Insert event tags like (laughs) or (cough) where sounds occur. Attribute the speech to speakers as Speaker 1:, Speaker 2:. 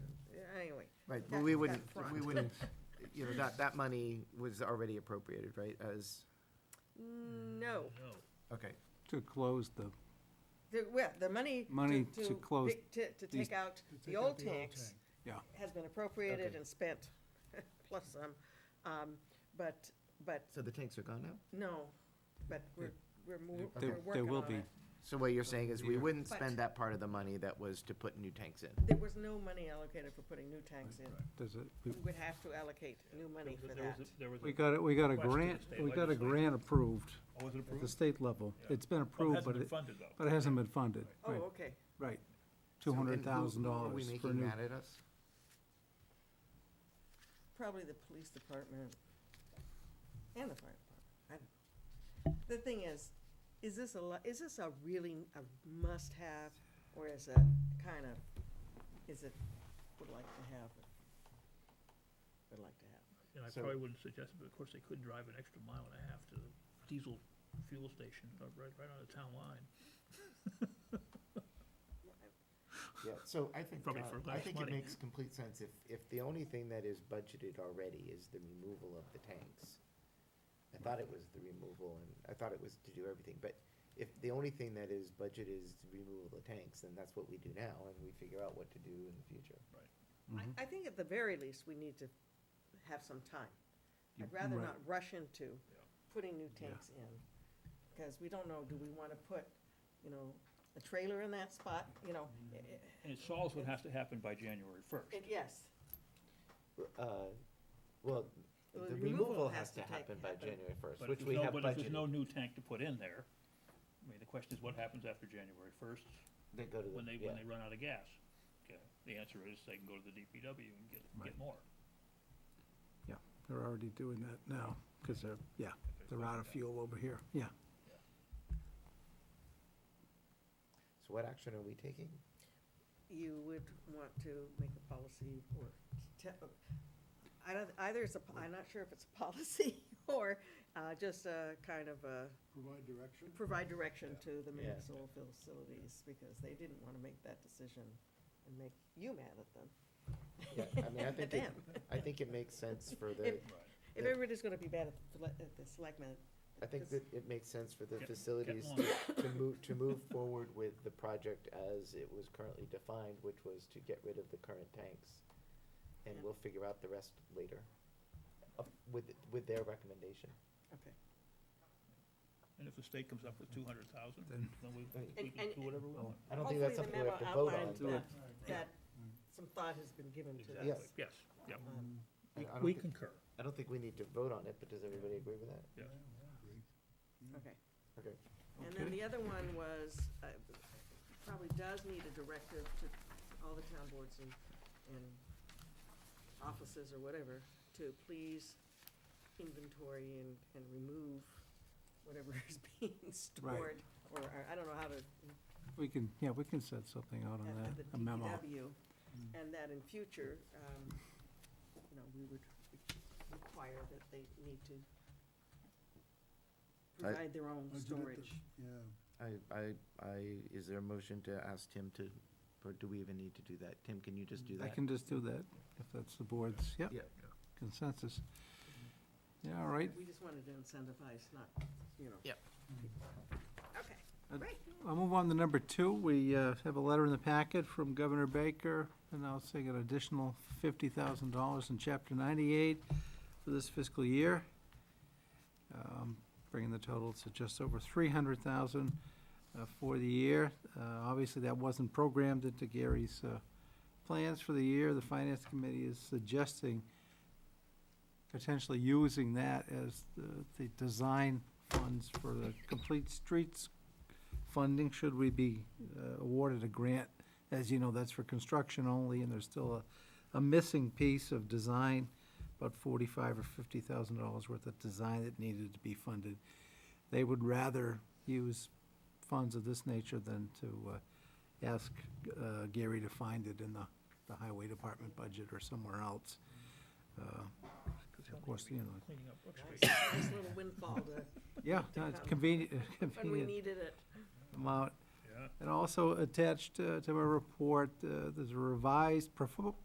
Speaker 1: Right, but
Speaker 2: That-
Speaker 1: we
Speaker 2: that
Speaker 1: wouldn't,
Speaker 2: front.
Speaker 1: (laughs) we wouldn't, you know, that, that money was already appropriated, right, as,
Speaker 2: No,
Speaker 1: okay.
Speaker 3: to close the,
Speaker 2: the, well, the money.
Speaker 3: Money to close
Speaker 2: pick- To, to
Speaker 3: these-
Speaker 2: take out
Speaker 4: To
Speaker 2: the
Speaker 4: take out
Speaker 2: old
Speaker 4: the old
Speaker 2: tanks.
Speaker 4: tank.
Speaker 3: Yeah.
Speaker 2: Has been appropriated
Speaker 1: Okay.
Speaker 2: and spent, (laughs) plus some, um, but, but,
Speaker 1: So the tanks are gone now?
Speaker 2: no, but we're, we're moving, we're
Speaker 1: Okay.
Speaker 3: there,
Speaker 2: working
Speaker 3: there will
Speaker 2: on
Speaker 3: be,
Speaker 2: it.
Speaker 1: So what you're saying is we
Speaker 3: Yeah.
Speaker 1: wouldn't
Speaker 2: But-
Speaker 1: spend that part of the money that was to put new tanks in?
Speaker 2: There was no money allocated for putting new tanks in.
Speaker 3: does it,
Speaker 2: We
Speaker 3: we-
Speaker 2: would have to allocate new money for
Speaker 5: There was
Speaker 2: that.
Speaker 5: a- there was a-
Speaker 3: we got, it. we got a
Speaker 5: Question to the
Speaker 3: grant,
Speaker 5: state
Speaker 3: we got a
Speaker 5: legislature.
Speaker 3: grant approved
Speaker 5: Oh, was it
Speaker 3: at the
Speaker 5: approved?
Speaker 3: state level.
Speaker 5: Yeah.
Speaker 3: It's been
Speaker 5: Oh, it
Speaker 3: approved,
Speaker 5: hasn't
Speaker 3: but
Speaker 5: been
Speaker 3: it,
Speaker 5: funded though.
Speaker 3: but it hasn't been funded.
Speaker 2: Oh,
Speaker 3: Right,
Speaker 2: okay.
Speaker 3: right.
Speaker 1: So-
Speaker 3: Two
Speaker 1: and who-
Speaker 3: hundred thousand
Speaker 1: who
Speaker 3: dollars for
Speaker 1: Are we making
Speaker 3: new,
Speaker 1: mad at us?
Speaker 2: Probably the police department and the fire department, I don't know. The thing is, is this a, li- is this a really a must-have, or is it kind of, is it would like to have, it? would like to have?
Speaker 5: And I
Speaker 1: So-
Speaker 5: probably wouldn't suggest it, but of course, they could drive an extra mile and a half to the diesel fuel station, uh, right, right on the town line.
Speaker 1: Yeah, so I think,
Speaker 5: Probably for
Speaker 1: uh, I
Speaker 5: less
Speaker 1: think it
Speaker 5: money.
Speaker 1: makes complete sense if, if the only thing that is budgeted already is the removal of the tanks. I thought it was the removal and I thought it was to do everything, but if the only thing that is budgeted is the removal of the tanks, then that's what we do now and we figure out what to do in the future.
Speaker 3: Mhm.
Speaker 2: I, I think at the very least, we need to have some time.
Speaker 3: You-
Speaker 2: I'd rather not
Speaker 3: right.
Speaker 2: rush into
Speaker 5: Yeah.
Speaker 2: putting new
Speaker 3: Yeah.
Speaker 2: tanks in, because we don't know, do we want to put, you know, a trailer in that spot, you know?
Speaker 3: Mm-hmm.
Speaker 2: i- i-
Speaker 5: And it solves what has to happen by January first.
Speaker 2: And yes,
Speaker 1: Uh, well,
Speaker 2: Well,
Speaker 1: the removal has to happen by January first,
Speaker 5: But if
Speaker 1: which
Speaker 5: there's
Speaker 1: we
Speaker 5: no-
Speaker 1: have
Speaker 5: But if there's no
Speaker 1: budgeted,
Speaker 5: new tank to put in there, I mean, the question is what happens after January first,
Speaker 1: they go to
Speaker 5: when
Speaker 1: the,
Speaker 5: they,
Speaker 1: yeah.
Speaker 5: when they run out of gas? Okay, the answer is they can go to the DPW and get,
Speaker 3: Right.
Speaker 5: get more.
Speaker 3: They're already doing that now, because they're, yeah,
Speaker 5: if there's
Speaker 3: they're
Speaker 5: budget
Speaker 3: out of
Speaker 5: down.
Speaker 3: fuel over here, yeah.
Speaker 1: So what action are we taking?
Speaker 5: (laughs)
Speaker 2: you would want to make a policy or, te- I don't, either it's a, po- I'm not sure if it's a (laughs) policy or uh, just a kind of a,
Speaker 4: Provide direction?
Speaker 2: provide direction to the
Speaker 1: Yeah.
Speaker 2: municipal facilities, because they didn't want to make that decision and make you mad at them.
Speaker 1: Yeah, I mean,
Speaker 2: (laughs)
Speaker 1: I think it,
Speaker 2: Them.
Speaker 1: I think it makes sense for the,
Speaker 2: If-
Speaker 5: Right.
Speaker 2: If
Speaker 1: the-
Speaker 2: everybody's gonna be bad at the, select- at the selectmen.
Speaker 1: I think
Speaker 2: this-
Speaker 1: that it makes sense for the
Speaker 5: Get- get
Speaker 1: facilities
Speaker 5: more.
Speaker 1: to, to move, to move forward with the project as it was currently defined, which was to get rid of the current tanks. And
Speaker 2: Yeah.
Speaker 1: we'll figure out the rest later, uh, with, with their recommendation.
Speaker 2: Okay.
Speaker 5: And if the state comes up with two hundred thousand, then
Speaker 3: Then- Oh.
Speaker 5: we,
Speaker 1: And-
Speaker 5: we can
Speaker 2: and-
Speaker 5: do whatever we want.
Speaker 1: I don't think that's something we have to vote on,
Speaker 2: Hopefully, the memo
Speaker 1: but
Speaker 3: Do
Speaker 2: outlined that, that some thought has been given to
Speaker 5: Exactly.
Speaker 2: this.
Speaker 1: Yes.
Speaker 5: Yes, yeah.
Speaker 2: Um,
Speaker 1: I- I don't
Speaker 5: We
Speaker 1: think-
Speaker 5: concur.
Speaker 1: I don't think we need to vote on it, but does everybody agree with that?
Speaker 5: Yes.
Speaker 2: Okay.
Speaker 1: Okay.
Speaker 2: And then the other one was, uh, probably does need a directive to all the town boards and, and offices or whatever, to please inventory and, and remove whatever (laughs) is being stored. Or, or I don't know how to,
Speaker 3: We can, yeah, we can set something out on
Speaker 2: at at
Speaker 3: that,
Speaker 2: the
Speaker 3: a memo. Mm.
Speaker 2: DPW, and that in future, um, you know, we would require that they need to
Speaker 1: I-
Speaker 2: provide their own
Speaker 4: Budget at the-
Speaker 2: storage.
Speaker 4: Yeah.
Speaker 1: I, I, I, is there a motion to ask Tim to, or do we even need to do that? Tim, can you just do
Speaker 3: I can just do that, if that's the board's, yep,
Speaker 1: Yeah.
Speaker 3: consensus. Yeah, all right,
Speaker 2: We just wanted to incentivize, not, you know.
Speaker 1: Yep.
Speaker 2: Okay.
Speaker 3: I'll move on to number two. We uh, have a letter in the packet from Governor Baker announcing an additional fifty thousand dollars in Chapter ninety-eight for this fiscal year, um, bringing the total to just over three hundred thousand dollars for the year. Uh, Obviously, that wasn't programmed into Gary's uh, plans for the year. The Finance Committee is suggesting potentially using that as the- the design funds for the Complete Streets funding, should we be uh, awarded a grant? As you know, that's for construction only, and there's still a, a missing piece of design, about forty-five or fifty thousand dollars worth of design that needed to be funded. They would rather use funds of this nature than to uh, ask uh, Gary to find it in the, the highway department budget or somewhere else. Uh, Of course, you know.
Speaker 5: Cleaning up Brook Street.
Speaker 2: Nice nice little windfall to,
Speaker 3: Yeah, no, it's (laughs) convenient,
Speaker 2: when we
Speaker 3: convenient
Speaker 2: needed it.
Speaker 3: amount.
Speaker 5: Yeah.
Speaker 3: And also attached uh, to my report, uh, there's a revised perfor-